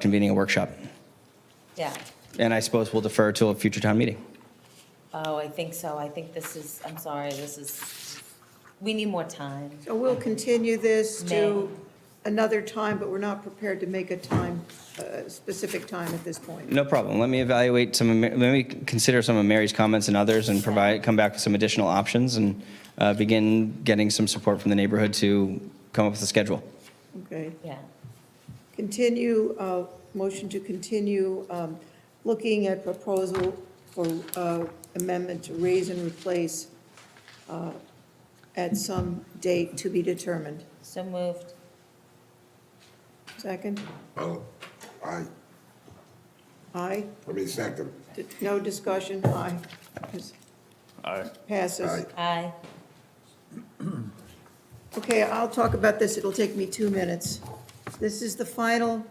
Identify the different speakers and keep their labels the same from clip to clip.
Speaker 1: convening a workshop.
Speaker 2: Yeah,
Speaker 1: And I suppose we'll defer to a future town meeting.
Speaker 2: oh, I think so, I think this is, I'm sorry, this is, we need more time.
Speaker 3: So we'll continue this to another time, but we're not prepared to make a time, a specific time at this point.
Speaker 1: No problem. Let me evaluate some, of Ma- let me consider some of Mary's comments and others and provide, come back with some additional options and uh, begin getting some support from the neighborhood to come up with a schedule.
Speaker 3: Okay.
Speaker 2: Yeah,
Speaker 3: Continue, uh, motion to continue um, looking at proposal for uh, amendment to raise and replace uh, at some date to be determined.
Speaker 2: so moved,
Speaker 3: Second?
Speaker 4: Oh, I,
Speaker 3: Aye?
Speaker 4: I mean, second,
Speaker 3: D- No discussion? Aye. Aye. Passes.
Speaker 4: Aye.
Speaker 2: aye,
Speaker 3: Okay, I'll talk about this, it'll take me two minutes. This is the final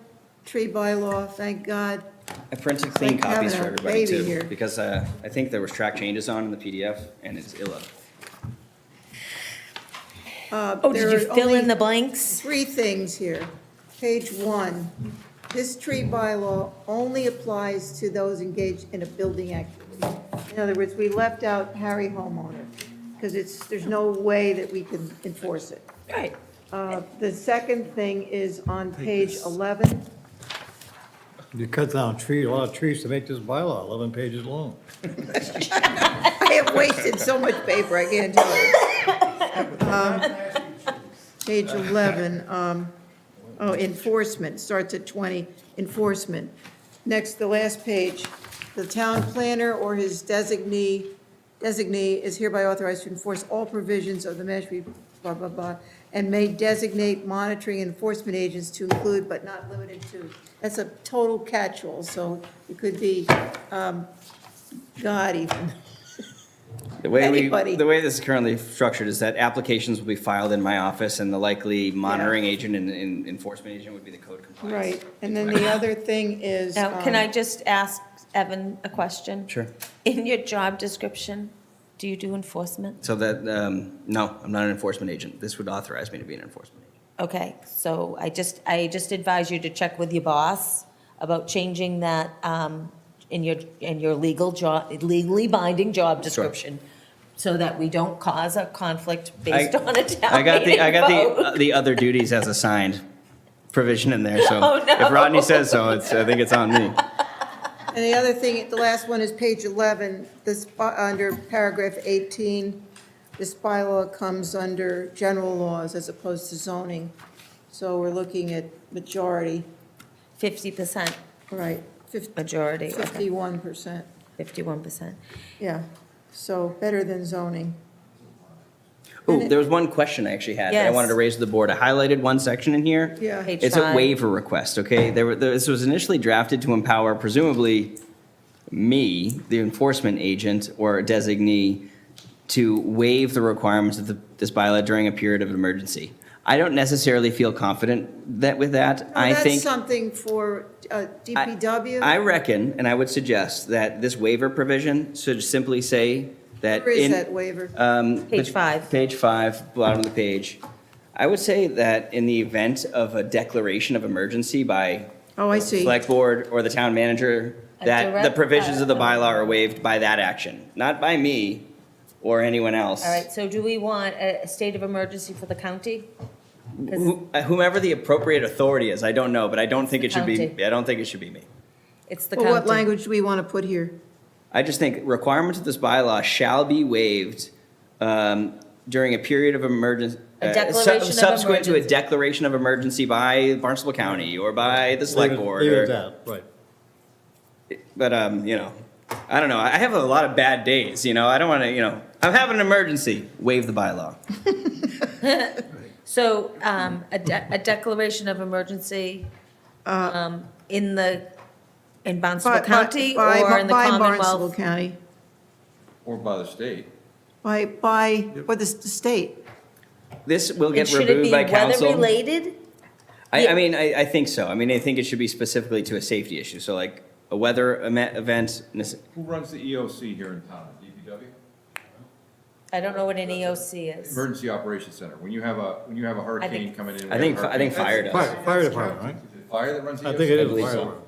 Speaker 3: tree bylaw, thank God.
Speaker 1: I printed clean
Speaker 3: Like
Speaker 1: copies for
Speaker 3: having a
Speaker 1: everybody
Speaker 3: baby here.
Speaker 1: too, because uh, I think there was track changes on in the PDF and it's illa.
Speaker 3: Uh,
Speaker 2: oh, did you fill in the blanks?
Speaker 3: Three things here. Page one, this tree bylaw only applies to those engaged in a building activity. In other words, we left out Harry homeowner, because it's, there's no way that we can enforce it.
Speaker 2: Right.
Speaker 3: Uh, The second thing is on page 11.
Speaker 5: You cut down tree, a lot of trees to make this bylaw 11 pages long.
Speaker 3: I have wasted so much paper, I can't tell you. Um, Page 11, um, oh, enforcement, starts at 20, enforcement. Next, the last page, the town planner or his designee, designee is hereby authorized to enforce all provisions of the Mashpee blah, blah, blah, and may designate monitoring enforcement agents to include but not limited to. That's a total catch-all, so it could be um, God even.
Speaker 1: The way we,
Speaker 3: Anybody.
Speaker 1: the way this is currently structured is that applications will be filed in my office and the likely monitoring agent and- and enforcement agent would be the code compliance.
Speaker 3: Right, and then the other thing is.
Speaker 2: Now, can I
Speaker 3: um,
Speaker 2: just ask Evan a question?
Speaker 1: Sure.
Speaker 2: In your job description, do you do enforcement?
Speaker 1: So that, um, no, I'm not an enforcement agent. This would authorize me to be an enforcement agent.
Speaker 2: Okay, so I just, I just advise you to check with your boss about changing that, um, in your, in your legal job, legally binding job description, so that we don't cause a conflict based
Speaker 1: I-
Speaker 2: on a
Speaker 1: I
Speaker 2: town
Speaker 1: got the, uh, I
Speaker 2: meeting
Speaker 1: got
Speaker 2: vote.
Speaker 1: the, the other duties as assigned provision in there, so.
Speaker 2: Oh, no.
Speaker 1: If Rodney says so, it's, I think it's on me.
Speaker 3: And the other thing, the last one is page 11, this, by- under paragraph 18, this bylaw comes under general laws as opposed to zoning. So we're looking at majority,
Speaker 2: Fifty percent
Speaker 3: right, fif-
Speaker 2: majority, okay,
Speaker 3: 51%,
Speaker 2: fifty-one percent.
Speaker 3: yeah. So better than zoning.
Speaker 1: Ooh, there was one question I actually had that I wanted to
Speaker 2: Yes.
Speaker 1: raise to the board. I highlighted one section in here.
Speaker 3: Yeah.
Speaker 2: Page
Speaker 1: It's a
Speaker 2: five.
Speaker 1: waiver request, okay? There were, this was initially drafted to empower presumably me, the enforcement agent or designee, to waive the requirements of the- this bylaw during a period of emergency. I don't necessarily feel confident that with that. I
Speaker 3: That's
Speaker 1: think.
Speaker 3: something for uh,
Speaker 1: I-
Speaker 3: DPW.
Speaker 1: I reckon, and I would suggest, that this waiver provision should simply say that.
Speaker 3: Where is
Speaker 1: in-
Speaker 3: that waiver?
Speaker 1: um,
Speaker 2: Page
Speaker 1: but-
Speaker 2: five.
Speaker 1: Page five, bottom of the page. I would say that in the event of a declaration of emergency by
Speaker 3: Oh, I see.
Speaker 1: select board or the town manager,
Speaker 2: A
Speaker 1: that the
Speaker 2: direct-
Speaker 1: provisions of the
Speaker 2: uh,
Speaker 1: bylaw are waived by that action, not by me or anyone else.
Speaker 2: All right, so do we want a a state of emergency for the county? 'Cause-
Speaker 1: Who- uh, Whomever the appropriate authority is, I don't know, but I don't think it should be,
Speaker 2: County.
Speaker 1: I don't think it should be me.
Speaker 2: It's the
Speaker 3: Well,
Speaker 2: county.
Speaker 3: what language do we want to put here?
Speaker 1: I just think requirements of this bylaw shall be waived um, during a period of emergency.
Speaker 2: A declaration of
Speaker 1: Subsequent to a
Speaker 2: emergency.
Speaker 1: declaration of emergency by Barnstable County or by the select
Speaker 5: Leave it-
Speaker 1: board.
Speaker 5: Leave
Speaker 1: or-
Speaker 5: it that, right.
Speaker 1: But, um, you know, I don't know. I have a lot of bad days, you know. I don't want to, you know, I'm having an emergency. Waive the bylaw.
Speaker 2: So, um, a de- a declaration of emergency,
Speaker 3: Uh,
Speaker 2: um, in the, in Barnstable
Speaker 3: By- by-
Speaker 2: County
Speaker 3: by-
Speaker 2: or in the
Speaker 3: By Barnstable
Speaker 2: Commonwealth?
Speaker 3: County,
Speaker 6: Or by the state.
Speaker 3: by, by, or the s- the state.
Speaker 1: This will
Speaker 2: And
Speaker 1: get
Speaker 2: should it
Speaker 1: removed
Speaker 2: be
Speaker 1: by council.
Speaker 2: weather-related?
Speaker 1: I, I mean, I, I think so. I mean, I think it should be specifically to a safety issue. So like a weather eme- event, nece-
Speaker 6: Who runs the EOC here in town? DPW?
Speaker 2: I don't know what an EOC is.
Speaker 6: Emergency Operations Center. When you have a, when you have a hurricane coming in. we
Speaker 1: I
Speaker 6: have
Speaker 1: think,
Speaker 6: a
Speaker 1: I think fire does.
Speaker 6: hurricane-
Speaker 5: Fire, fire department, right?
Speaker 7: fire that runs the EOC?
Speaker 6: I think it is
Speaker 5: believe
Speaker 6: fire
Speaker 5: so.
Speaker 6: alarm.